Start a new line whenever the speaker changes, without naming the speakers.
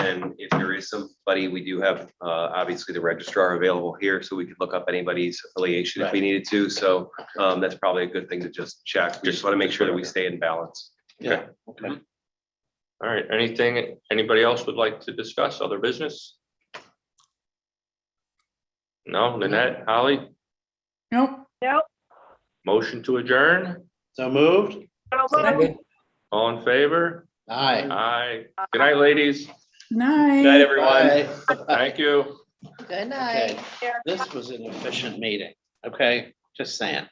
And if there is somebody, we do have, uh, obviously the registrar available here, so we could look up anybody's affiliation if we needed to. So, um, that's probably a good thing to just check. We Just want to make sure that we stay in balance.
Yeah, okay. All right, anything, anybody else would like to discuss other business? No, Lynette, Holly,
Nope.
Nope.
motion to adjourn,
So moved?
So moved.
all in favor?
Aye.
Aye. Good night, ladies.
Night.
Night, everyone.
Aye.
Thank you.
Good night.
Okay, This was an efficient meeting, okay? Just saying.